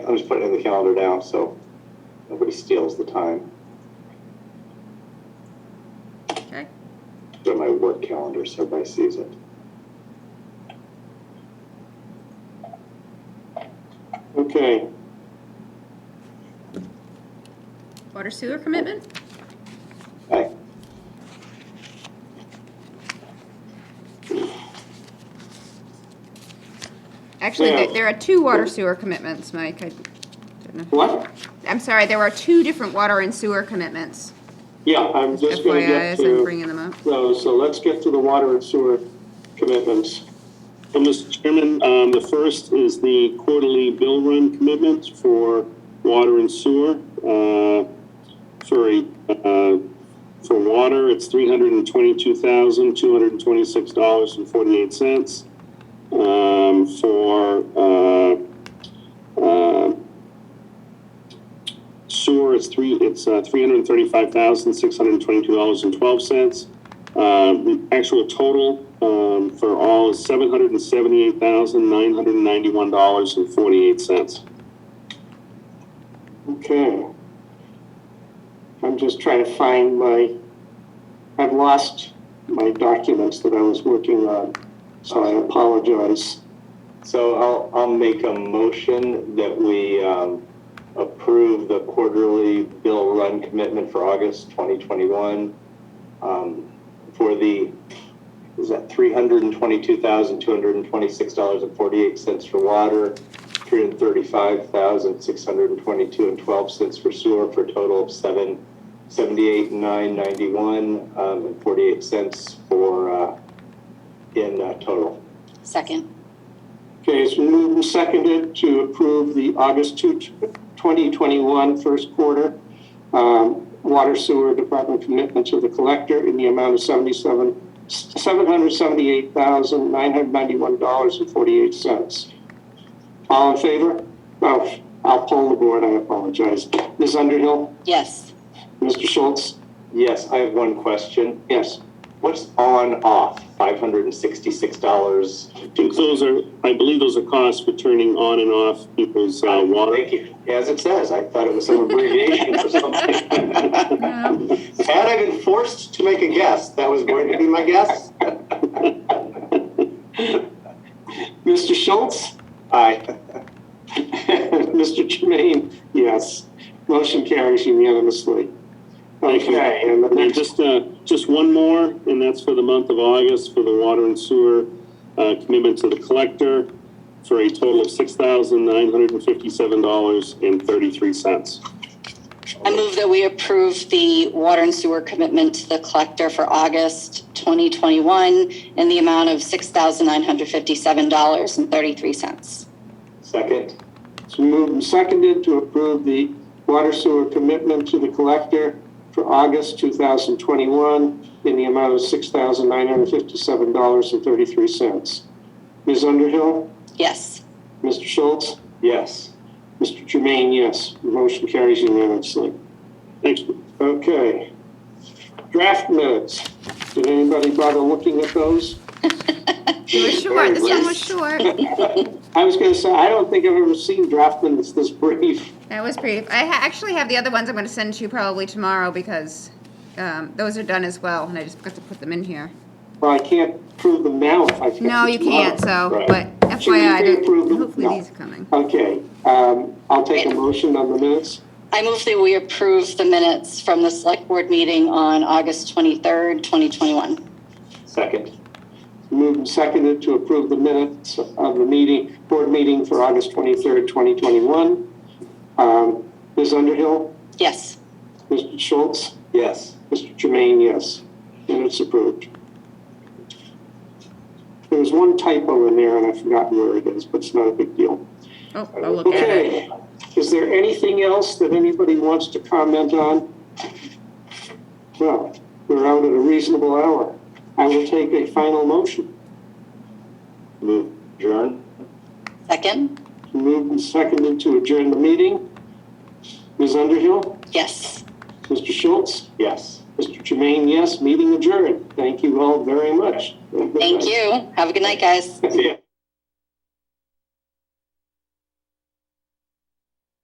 I'm just putting it in the calendar now, so nobody steals the time. Okay, It's on my work calendar, so everybody sees it. Okay, water sewer commitment? aye. Actually, there, Yeah. there are two water sewer commitments, Mike. I don't know. What? I'm sorry, there are two different water and sewer commitments. Yeah, I'm just gonna FYI, get as I'm to bringing them up. those, so let's get to the water and sewer commitments. So, Mr. Chairman, um, the first is the quarterly bill run commitment for water and sewer. Uh, sorry, uh, for water, it's three hundred and twenty-two thousand, two hundred and twenty-six dollars and forty-eight cents. Um, for, uh, uh, sewer, it's three, it's, uh, three hundred and thirty-five thousand, six hundred and twenty-two dollars and twelve cents. Um, the actual total, um, for all is seven hundred and seventy-eight thousand, nine hundred and ninety-one dollars and forty-eight cents. Okay. I'm just trying to find my, I've lost my documents that I was working on, so I apologize. So I'll, I'll make a motion that we um, approve the quarterly bill run commitment for August 2021 um, for the, is that $322,226.48 for water, Three hundred thirty-five thousand six hundred twenty-two and twelve cents for sewer for a total of seven seventy-eight nine ninety-one um, and forty-eight cents for, uh, in uh, total. Second. Okay, it's moved and seconded to approve the August 2, 2021 first quarter um, water sewer department commitment to the collector in the amount of 77, $778,991.48. All in favor? Oh, I'll poll the board, I apologize. Ms. Underhill? Yes. Mr. Schultz? Yes, I have one question. Yes. What's on, off, $566? I think those are, I believe those are costs for turning on and off people's, uh, water. Thank you. As it says, I thought it was some abbreviation or something. No. Had I been forced to make a guess, that was going to be my guess. Mr. Schultz? Aye. Mr. Jermaine? Yes. Motion carries unanimously. Thank you. Okay, and the And next just, uh, just one more, and that's for the month of August for the water and sewer, uh, commitment to the collector for a total of six thousand, nine hundred and fifty-seven dollars and thirty-three cents. I move that we approve the water and sewer commitment to the collector for August 2021 in the amount of $6,957.33. Second. It's moved and seconded to approve the water sewer commitment to the collector for August 2021 in the amount of $6,957.33. Ms. Underhill? Yes. Mr. Schultz? Yes. Mr. Jermaine, yes. Motion carries unanimously. Thanks, Okay. Draft minutes. Did anybody bother looking at those? It was short, this one was short. I was going to say, I don't think I've ever seen draft minutes this brief. That was brief. I ha- actually have the other ones I'm gonna send to you probably tomorrow because, um, those are done as well and I just forgot to put them in here. Well, I can't prove them now if I can't. No, you can't, so, but Should we FYI, I didn't- reapprove them? hopefully No. these are coming. Okay, um, I'll take a motion on the minutes. I move that we approve the minutes from the select board meeting on August 23rd, 2021. Second. Moved and seconded to approve the minutes of the meeting, board meeting for August 23rd, 2021. Um, Ms. Underhill, Yes. Mr. Schultz, Yes. Mr. Jermaine, yes. Minutes approved. There was one typo in there and I've forgotten where it is, but it's not a big deal. Oh, I'll look at it. Okay, is there anything else that anybody wants to comment on? Well, we're out at a reasonable hour. I will take a final motion. Move adjourn. Second? Moved and seconded to adjourn the meeting. Ms. Underhill? Yes. Mr. Schultz? Yes. Mr. Jermaine, yes, meeting adjourned. Thank you all very much. Thank you. Have a good night, guys. See ya.